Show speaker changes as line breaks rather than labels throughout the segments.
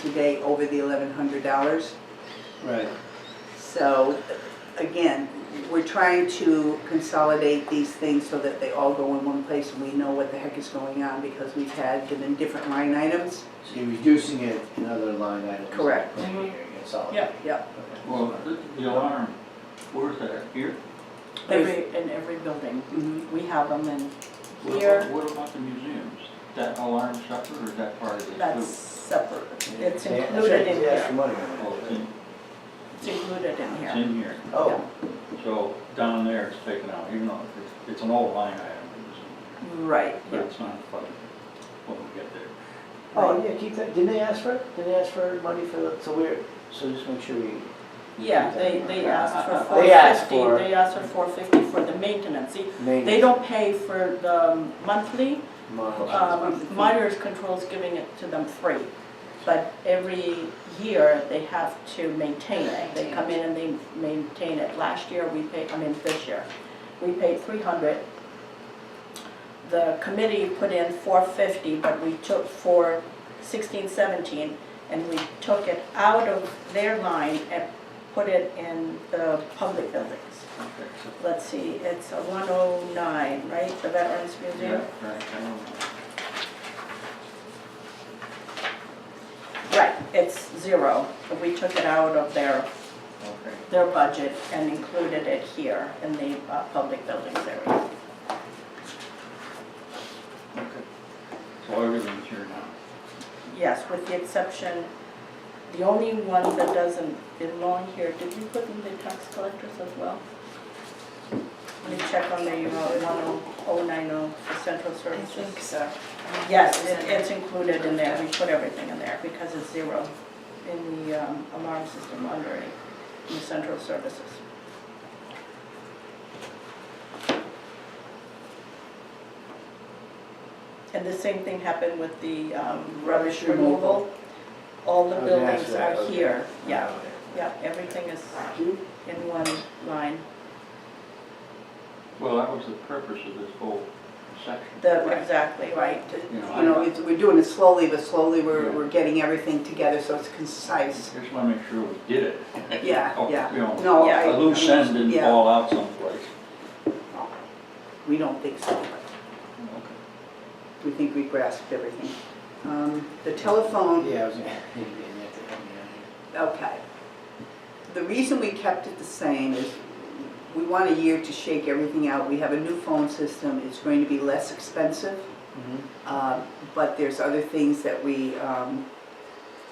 today over the eleven hundred dollars.
Right,
So, again, we're trying to consolidate these things so that they all go in one place and we know what the heck is going on because we've had them in different line items.
so you're reducing it in other line items.
Correct.
Putting it
Mm-hmm.
here, consolidate.
Yep.
Okay.
Well, the- the alarm, where's that, here?
Every, in every building,
Mhm.
Mm-hmm.
we have them and
What about-
Here.
What about the museums? That alarm shutter or is that part of it? too?
that's separate. It's
They-
included in
they asked for
here,
money
Oh,
on
it's
it.
in,
it's included in
it's
here.
in here.
Oh,
So down there it's taken out, even though it's, it's an old line item, it's-
Right,
but it's not part of it when we get there.
oh, yeah, keep that, didn't they ask for it? Didn't they ask for money for, the- so we're, so just make sure we,
yeah, they, they asked for four fifty.
They asked for-
They asked for four fifty for the maintenance. See, they
maintenance,
don't pay for the monthly,
model.
um, Myers Control's giving it to them free. But every year, they have to maintain it. They come in and they maintain it. Last year, we paid, I mean, this year, we paid three hundred. The committee put in four fifty, but we took for sixteen, seventeen, and we took it out of their line and put it in the public buildings.
Okay, so-
Let's see, it's a one oh nine, right, the Veterans Museum?
Yeah, right, I don't know.
Right, it's zero, but we took it out of their,
Okay.
their budget and included it here in the uh, public buildings area.
Okay. So everything's here now.
Yes, with the exception, the only one that doesn't belong here, did we put in the tax collectors as well? Let me check on the uh, 10090 for central
I
services. uh,
think so.
Yes, it- it's included in there, we put everything in there because it's zero in the um, alarm system under it, in the central services. And the same thing happened with the um, rubbish removal. All the
I was gonna ask
buildings
that,
are
Oh, okay. Oh,
here, yeah, yeah, everything is in one line.
Well, that was the purpose of this whole section.
The, exactly, right,
You know, it's, we're doing it slowly, but slowly we're,
Yeah.
we're getting everything together so it's concise.
Just wanna make sure we did it.
Yeah,
Oh,
yeah.
you know,
No,
Yeah.
I.
A loose end didn't
yeah.
fall out someplace.
We don't think so.
Okay.
We think we grasped everything. Um, The telephone
Yeah, I was gonna, you didn't have to help me out here.
Okay. The reason we kept it the same is we want a year to shake everything out. We have a new phone system. It's going to be less expensive,
Mhm.
uh, but there's other things that we, um,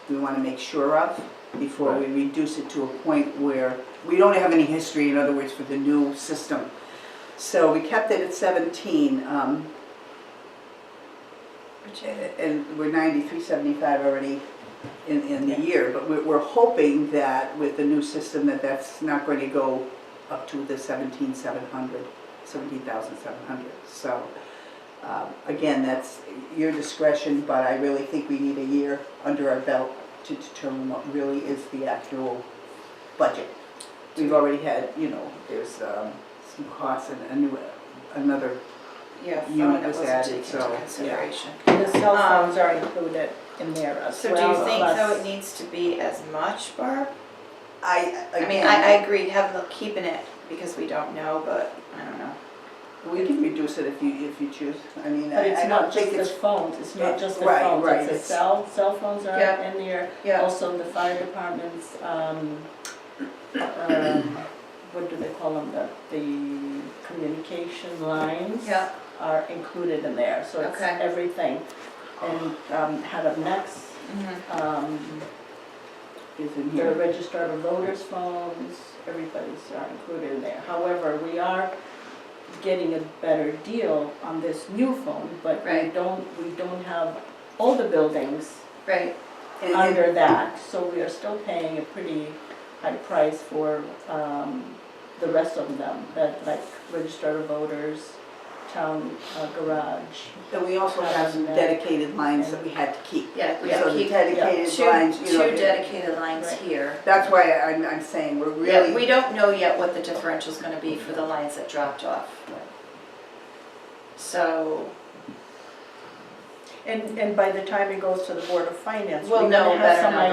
we want to make sure of before we reduce it to a point where we don't have any history, in other words, for the new system. So we kept it at 17, um,
Which is it?
and we're ninety-three seventy-five already in, in the year, but we're, we're hoping that with the new system that that's not going to go up to the seventeen seven hundred, seventeen thousand seven hundred. So, um, again, that's your discretion, but I really think we need a year under our belt to determine what really is the actual budget. We've already had, you know, there's, um, some costs and a new, another
Yeah, phone
Unit
that
was
wasn't
added,
taken
so,
into
yeah.
consideration.
and the cell phones are included in there as
Um, So
well.
do you think though
plus-
it needs to be as much, Barb?
I,
I mean,
again,
I, I agree, have, the- keeping it because we don't know, but I don't know.
We can reduce it if you, if you choose, I mean,
But
I I
it's
don't
not
think
just the
it's,
phones, it's
it-
not just the
right,
phones,
right,
it's the
it's-
cell, cell phones are
Yeah.
in there.
Yeah,
Also, the fire departments, um, um, what do they call them, the, the communication lines
yeah,
are included in there, so it's
Okay.
everything. And, um, head of next,
mhm,
um,
is in here.
their registered voters' phones, everybody's are included in there. However, we are getting a better deal on this new phone, but we
Right.
don't, we don't have all the buildings
right,
And- and-
under that, so we are still paying a pretty high price for um, the rest of them, that like registered voters, town uh, garage.
And we also have some dedicated lines that we had to keep.
yeah, we
So
gotta
the
keep
dedicated
two,
lines, you know.
two dedicated lines
Right.
here.
That's why I'm, I'm saying we're
Yeah, we
really,
don't know yet what the differential's gonna be for the lines that dropped off. So,
And, and by the time it goes to the Board of Finance,
We'll
we're gonna
know
have
better
some
now.